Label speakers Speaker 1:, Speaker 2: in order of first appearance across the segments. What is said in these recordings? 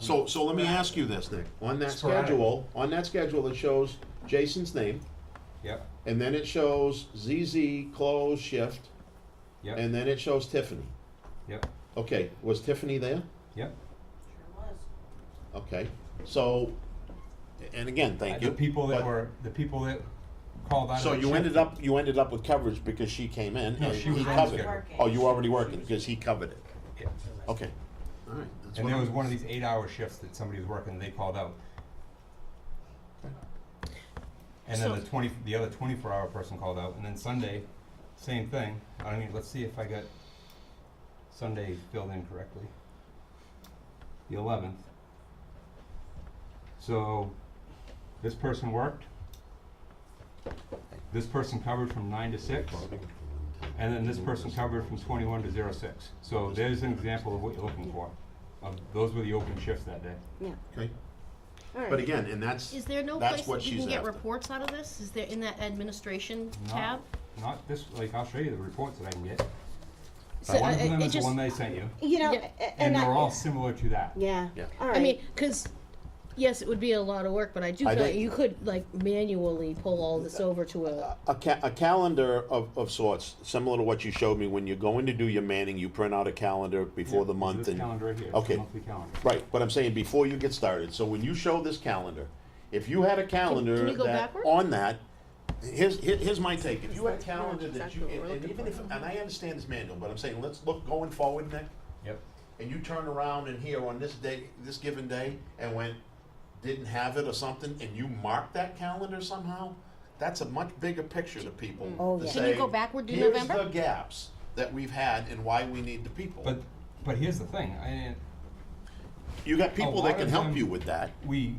Speaker 1: So, so let me ask you this, Nick, on that
Speaker 2: Sporadic.
Speaker 1: schedule, on that schedule, it shows Jason's name,
Speaker 2: Yep,
Speaker 1: and then it shows ZZ close shift,
Speaker 2: yep,
Speaker 1: and then it shows Tiffany.
Speaker 2: yep,
Speaker 1: Okay, was Tiffany there?
Speaker 2: yep.
Speaker 3: Sure was.
Speaker 1: Okay, so, and again, thank you.
Speaker 2: The people that
Speaker 1: but-
Speaker 2: were, the people that called out.
Speaker 1: So
Speaker 2: of the
Speaker 1: you
Speaker 2: shift-
Speaker 1: ended up, you ended up with coverage because she came in
Speaker 2: No,
Speaker 1: and
Speaker 2: she
Speaker 1: he
Speaker 2: was on
Speaker 1: covered.
Speaker 2: schedule.
Speaker 1: Oh, you were already working, because he covered it,
Speaker 2: Yeah.
Speaker 1: okay. All right, that's
Speaker 2: And
Speaker 1: what
Speaker 2: there
Speaker 1: I'm-
Speaker 2: was one of these eight-hour shifts that somebody was working, and they called out. And then the twenty, the other twenty-four hour person called out, and then Sunday, same thing. I mean, let's see if I got Sunday filled in correctly. The eleventh. So, this person worked. This person covered from nine to six. And then this person covered from twenty-one to zero six. So there's an example of what you're looking for. Of, those were the open shifts that day.
Speaker 4: Yeah,
Speaker 1: Okay,
Speaker 4: all right.
Speaker 1: but again, and that's,
Speaker 5: Is there no
Speaker 1: That's
Speaker 5: place
Speaker 1: what
Speaker 5: that you
Speaker 1: she's
Speaker 5: can get
Speaker 1: after.
Speaker 5: reports out of this? Is there in that administration
Speaker 2: Not-
Speaker 5: tab?
Speaker 2: Not this, like, I'll show you the reports that I can get.
Speaker 4: So,
Speaker 2: One of
Speaker 4: uh,
Speaker 2: them
Speaker 4: it
Speaker 2: is the
Speaker 4: just-
Speaker 2: one they sent you,
Speaker 4: You know,
Speaker 5: Yeah.
Speaker 4: a-
Speaker 2: and
Speaker 4: a- and I.
Speaker 2: they're all similar to that.
Speaker 4: Yeah,
Speaker 1: Yeah.
Speaker 4: all right.
Speaker 5: I mean, because, yes, it would be a lot of work, but I do
Speaker 1: I
Speaker 5: feel like
Speaker 1: don't-
Speaker 5: you could like manually pull all this over to a,
Speaker 1: a ca- a calendar of, of sorts, similar to what you showed me, when you're going to do your manning, you print out a calendar before the
Speaker 2: This
Speaker 1: month and.
Speaker 2: calendar right here, it's the
Speaker 1: Okay,
Speaker 2: monthly calendar.
Speaker 1: right, but I'm saying before you get started, so when you show this calendar, if you had a calendar
Speaker 5: you go
Speaker 1: that,
Speaker 5: backwards?
Speaker 1: on that, here's, here- here's my take, if you had a calendar that you, and and even if, and I understand this manual, but I'm saying, let's look going forward, Nick,
Speaker 2: Yep,
Speaker 1: and you turn around and here on this day, this given day, and went, didn't have it or something, and you mark that calendar somehow, that's a much bigger picture to people.
Speaker 4: Oh,
Speaker 1: to
Speaker 4: yeah.
Speaker 5: Can you
Speaker 1: say,
Speaker 5: go backward to
Speaker 1: Here's
Speaker 5: November?"
Speaker 1: the gaps that we've had and why we need the people.
Speaker 2: but, but here's the thing, I,
Speaker 1: You got people
Speaker 2: lot
Speaker 1: that can
Speaker 2: of
Speaker 1: help
Speaker 2: them-
Speaker 1: you with that.
Speaker 2: we,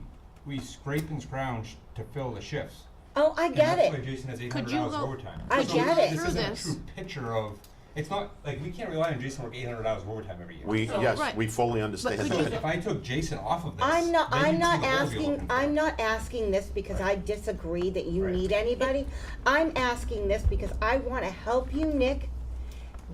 Speaker 2: we scrape and scrounge to fill the shifts.
Speaker 4: oh, I
Speaker 2: And
Speaker 4: get
Speaker 2: that's why
Speaker 4: it.
Speaker 2: Jason has eight
Speaker 5: Could
Speaker 2: hundred
Speaker 5: you
Speaker 2: hours of
Speaker 5: go-
Speaker 2: overtime.
Speaker 4: I
Speaker 2: So
Speaker 4: get it.
Speaker 2: This
Speaker 5: Through
Speaker 2: isn't a
Speaker 5: this.
Speaker 2: true picture of, it's not, like, we can't rely on Jason to work eight hundred hours of overtime every year.
Speaker 1: We,
Speaker 5: So,
Speaker 1: yes,
Speaker 5: right.
Speaker 1: we fully understand.
Speaker 5: could
Speaker 2: So
Speaker 1: that.
Speaker 2: if I took Jason off of this.
Speaker 4: I'm not.
Speaker 2: then you'd
Speaker 4: I'm
Speaker 2: see
Speaker 4: not
Speaker 2: the goals you're
Speaker 4: asking.
Speaker 2: looking for.
Speaker 4: I'm not asking this because I disagree that you need anybody. I'm asking this because I want to help you, Nick.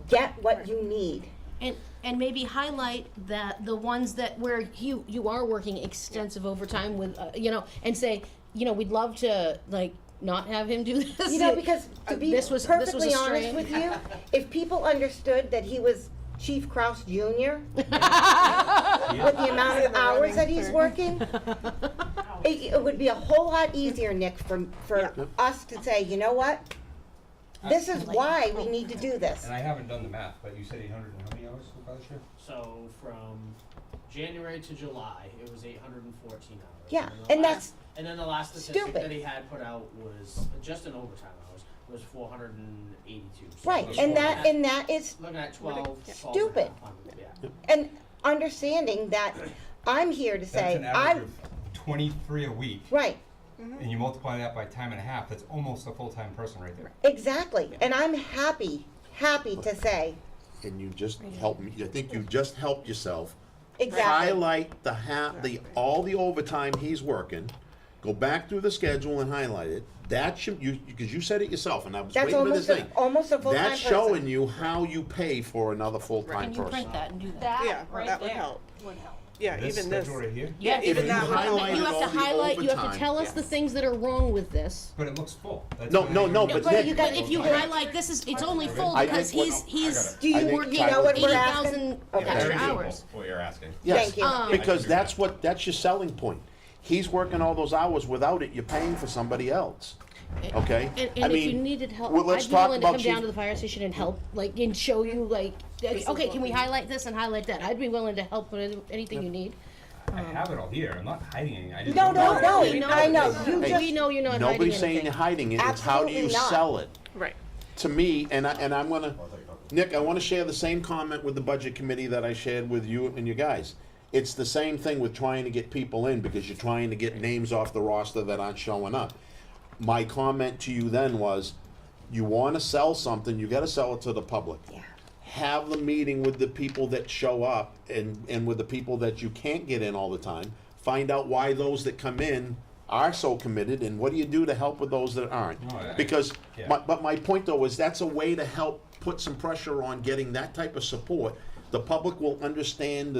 Speaker 4: Get what you need.
Speaker 5: and, and maybe highlight that, the ones that, where you, you are working extensive overtime with, uh, you know, and say, you know, we'd love to, like, not have him do this. Uh,
Speaker 4: You know, because to be
Speaker 5: This was- this was
Speaker 4: perfectly
Speaker 5: a
Speaker 4: honest
Speaker 5: strain.
Speaker 4: with you, if people understood that he was Chief Kraus Jr. with the amount of hours that he's working, it, it would be a whole lot easier, Nick, for for us to say, you know what, this is why we need to do this.
Speaker 2: And I haven't done the math, but you said eight hundred and how many hours for last year?
Speaker 6: So from January to July, it was 814 hours.
Speaker 4: Yeah,
Speaker 6: then the
Speaker 4: and
Speaker 6: last-
Speaker 4: that's
Speaker 6: and then the last statistic
Speaker 4: stupid.
Speaker 6: that he had put out was just in overtime hours was 482. So
Speaker 4: right,
Speaker 6: we're
Speaker 4: and
Speaker 6: looking
Speaker 4: that
Speaker 6: at-
Speaker 4: and that is
Speaker 6: looking at 12 falls in
Speaker 4: Stupid.
Speaker 6: half on- Yeah.
Speaker 4: and understanding that I'm here to
Speaker 2: That's
Speaker 4: say
Speaker 2: an
Speaker 4: I
Speaker 2: average of twenty-three a week,
Speaker 4: right.
Speaker 2: and you multiply that by time and a half, that's almost a full-time person right there.
Speaker 4: Exactly. And I'm happy, happy to say,
Speaker 1: And you just help me, I think you just helped yourself.
Speaker 4: exactly.
Speaker 1: Highlight the ha, the, all the overtime he's working, go back through the schedule and highlight it. That should, you, because you said it yourself, and I was
Speaker 4: That's
Speaker 1: waiting for this
Speaker 4: almost
Speaker 1: thing.
Speaker 4: a, almost a full-time
Speaker 1: That's
Speaker 4: person.
Speaker 1: showing you how you pay for another full-time
Speaker 5: And you print
Speaker 1: person.
Speaker 5: that and do that.
Speaker 7: Yeah,
Speaker 3: That right
Speaker 7: that would
Speaker 3: there
Speaker 7: help.
Speaker 3: would help.
Speaker 7: Yeah,
Speaker 2: This
Speaker 7: even this.
Speaker 2: schedule right here,
Speaker 5: Yeah,
Speaker 1: If
Speaker 7: even
Speaker 1: you
Speaker 7: that one.
Speaker 1: highlighted
Speaker 5: You
Speaker 1: all
Speaker 5: have to
Speaker 1: the
Speaker 5: highlight, you have to
Speaker 1: overtime-
Speaker 5: tell us the things that are wrong with this.
Speaker 2: but it looks full. That's
Speaker 1: No,
Speaker 2: what I-
Speaker 1: no, no, but
Speaker 5: But
Speaker 1: Nick-
Speaker 5: you,
Speaker 1: got-
Speaker 5: but if you highlight, this is, it's only full
Speaker 1: I
Speaker 5: because
Speaker 1: think
Speaker 5: he's,
Speaker 1: what-
Speaker 5: he's
Speaker 4: Do you-
Speaker 1: I think
Speaker 5: working
Speaker 1: Ty
Speaker 4: know what
Speaker 1: was-
Speaker 4: we're
Speaker 5: eighty
Speaker 4: at?
Speaker 5: thousand
Speaker 4: Okay.
Speaker 5: extra
Speaker 1: Very simple.
Speaker 5: hours.
Speaker 8: What you're asking.
Speaker 1: Yes,
Speaker 4: Thank you. Um,
Speaker 1: Because that's what, that's your selling point. He's working all those hours. Without it, you're paying for somebody else, okay?
Speaker 5: And,
Speaker 1: I
Speaker 5: and if you
Speaker 1: mean,
Speaker 5: needed help,
Speaker 1: well, let's
Speaker 5: I'd be
Speaker 1: talk
Speaker 5: willing to
Speaker 1: about
Speaker 5: come down
Speaker 1: Chief-
Speaker 5: to the fire station and help, like, and show you, like, like, okay, can we highlight this and highlight that? I'd be willing to help with anything you need.
Speaker 2: I have it all here, I'm not hiding anything, I just. don't
Speaker 4: No, no,
Speaker 2: know.
Speaker 4: no,
Speaker 5: We know-
Speaker 4: I know, you
Speaker 1: Hey,
Speaker 5: We
Speaker 4: just,
Speaker 5: know you're not hiding
Speaker 1: Nobody's saying
Speaker 5: anything.
Speaker 1: you're hiding it, it's how do you
Speaker 4: Absolutely not.
Speaker 1: sell it?
Speaker 7: Right.
Speaker 1: To me, and I, and I'm gonna, Nick, I wanna share the same comment with the budget committee that I shared with you and you guys. It's the same thing with trying to get people in, because you're trying to get names off the roster that aren't showing up. My comment to you then was, you wanna sell something, you gotta sell it to the public.
Speaker 4: Yeah.
Speaker 1: Have the meeting with the people that show up and, and with the people that you can't get in all the time. Find out why those that come in are so committed and what do you do to help with those that aren't?
Speaker 2: No, I-
Speaker 1: Because,
Speaker 2: yeah.
Speaker 1: my, but my point though is that's a way to help put some pressure on getting that type of support. The public will understand